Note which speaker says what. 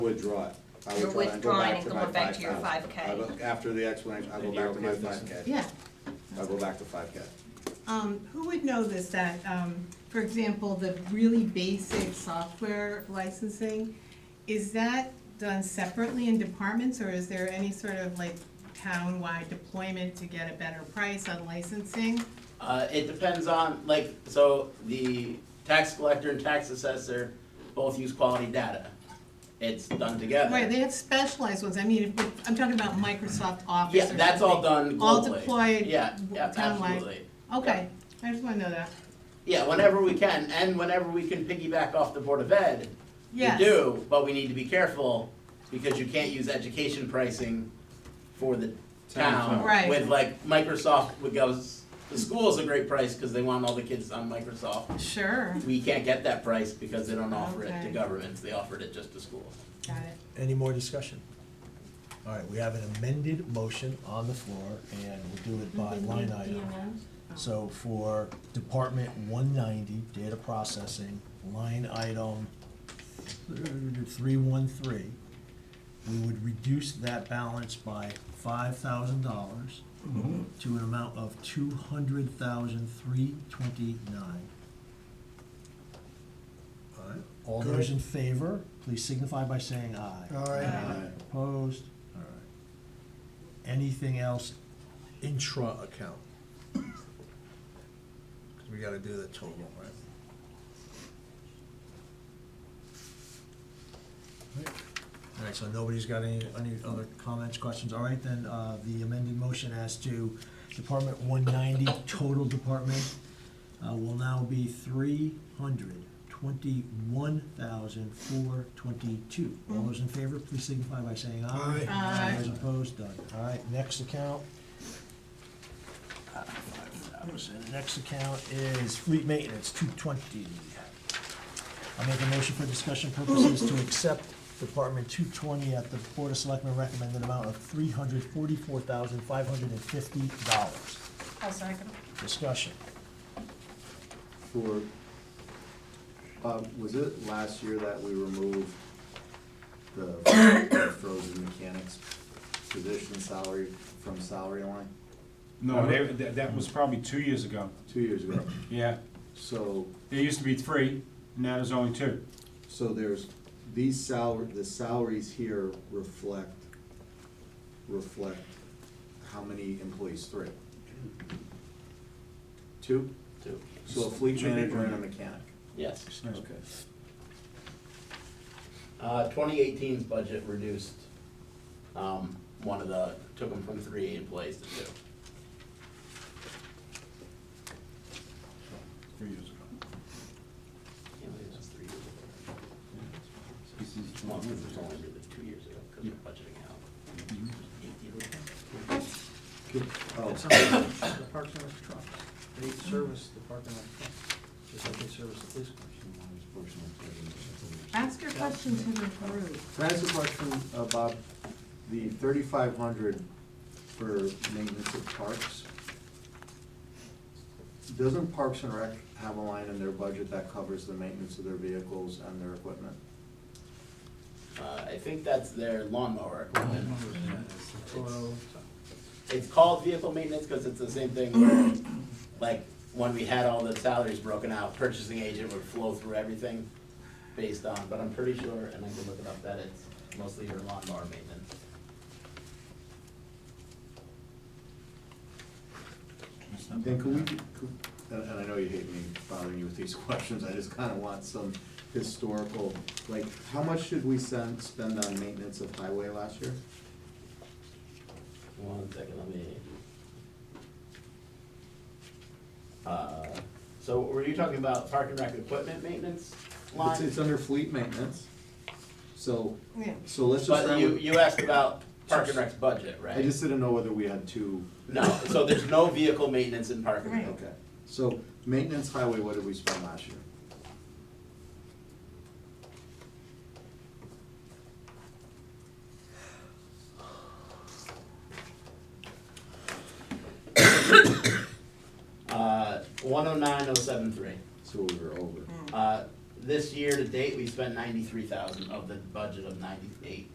Speaker 1: Withdraw it. I
Speaker 2: You're
Speaker 1: withdraw it and go
Speaker 2: withdrawing
Speaker 1: back
Speaker 2: and
Speaker 1: to
Speaker 2: going
Speaker 1: my
Speaker 2: back to your
Speaker 1: 5,000.
Speaker 2: 5K.
Speaker 1: I will- After the explanation, I'll go
Speaker 3: And you're
Speaker 1: back to my
Speaker 3: okay with
Speaker 1: five K.
Speaker 4: Yeah.
Speaker 1: I'll go back to five K.
Speaker 4: Um, who would know this, that, um, for example, the really basic software licensing, is that done separately in departments, or is there any sort of like town-wide deployment to get a better price on licensing?
Speaker 3: Uh, it depends on, like, so the tax collector and tax assessor both use quality data. It's done together.
Speaker 4: Right, they have specialized ones, I mean, if- I'm talking about Microsoft Office or
Speaker 3: Yeah, that's all
Speaker 4: something.
Speaker 3: done globally.
Speaker 4: All deployed
Speaker 3: Yeah, yeah,
Speaker 4: townwide.
Speaker 3: absolutely.
Speaker 4: Okay, I just wanna know that,
Speaker 3: Yeah, whenever we can, and whenever we can piggyback off the Board of Ed, we
Speaker 4: yes.
Speaker 3: do, but we need to be careful, because you can't use education pricing for the town.
Speaker 4: Right.
Speaker 3: With like, Microsoft would go, s- the school's a great price, cause they want all the kids on Microsoft.
Speaker 4: Sure,
Speaker 3: We can't get that price because they don't offer it to
Speaker 4: Okay.
Speaker 3: governments, they offered it just to schools.
Speaker 4: got it.
Speaker 5: Any more discussion? All right, we have an amended motion on the floor, and we'll do it by line item. So for Department one ninety, data processing, line item three one three, we would reduce that balance by five thousand dollars to an amount of two hundred thousand three twenty-nine. All right, all those in favor, please signify by saying aye.
Speaker 4: Aye.
Speaker 5: Opposed? All right. Anything else intra-account? Because we gotta do the total, right? All right, so nobody's got any, any other comments, questions? All right, then, uh, the amended motion as to Department one ninety, total department, uh, will now be three hundred twenty-one thousand four twenty-two. All those in favor, please signify by saying aye.
Speaker 6: Aye.
Speaker 4: Aye.
Speaker 5: Those opposed, done. All right, next account. Uh, $5,000. The Next account is fleet maintenance, two twenty. I make a motion for discussion purposes to accept Department two twenty at the Board of Selectmen recommended amount of three hundred forty-four thousand five hundred and fifty dollars.
Speaker 2: I'll second.
Speaker 5: Discussion.
Speaker 1: For, um, was it last year that we removed the frozen mechanics position salary from salary line?
Speaker 6: No, they, that, that was probably two years ago,
Speaker 1: Two years ago.
Speaker 6: yeah.
Speaker 1: So,
Speaker 6: There used to be three, now there's only two.
Speaker 1: so there's, these salary, the salaries here reflect, reflect how many employees? Three? Two?
Speaker 3: Two.
Speaker 1: So a fleet manager and a mechanic.
Speaker 3: Yes.
Speaker 6: Nice.
Speaker 3: Uh, 2018's budget reduced, um, one of the, took them from three employees to two.
Speaker 6: Three years ago.
Speaker 3: Can't believe that's three years ago.
Speaker 6: This is
Speaker 3: Well,
Speaker 6: one
Speaker 3: because it
Speaker 6: years
Speaker 3: was
Speaker 6: ago. Mm-hmm.
Speaker 3: only really two years ago, because
Speaker 6: Yeah.
Speaker 3: we're budgeting out. eight years ago.
Speaker 1: Oh,
Speaker 7: It's not the Parks and Rec truck. They service the Park and Rec truck, just like they service the police cars.
Speaker 4: Ask your question to the group.
Speaker 1: Can I ask a question about the thirty-five hundred for maintenance of parks? Doesn't Parks and Rec have a line in their budget that covers the maintenance of their vehicles and their equipment?
Speaker 3: Uh, I think that's their lawnmower equipment.
Speaker 7: Toro,
Speaker 3: It's called vehicle maintenance because it's the same thing where, like, when we had all the salaries broken out, purchasing agent would flow through everything based on, but I'm pretty sure, and I can look it up, that it's mostly your lawnmower maintenance.
Speaker 1: And could we, could- and and I know you hate me bothering you with these questions, I just kinda want some historical, like, how much did we send, spend on maintenance of highway last year?
Speaker 3: One second, let me. Uh, so were you talking about park and rec equipment maintenance
Speaker 1: It's,
Speaker 3: line?
Speaker 1: it's under fleet maintenance, so,
Speaker 4: Yeah.
Speaker 1: so let's just.
Speaker 3: But
Speaker 1: round
Speaker 3: you,
Speaker 1: with-
Speaker 3: you asked about park and rec's budget, right?
Speaker 1: I just didn't know whether we had two,
Speaker 3: No, so there's no vehicle maintenance in park and rec.
Speaker 4: Right.
Speaker 1: okay. So maintenance highway, what did we spend last year?
Speaker 3: Uh, one oh nine oh seven three. oh
Speaker 1: So we were over.
Speaker 3: Uh, this year to date, we spent ninety-three thousand of the budget of ninety-eight.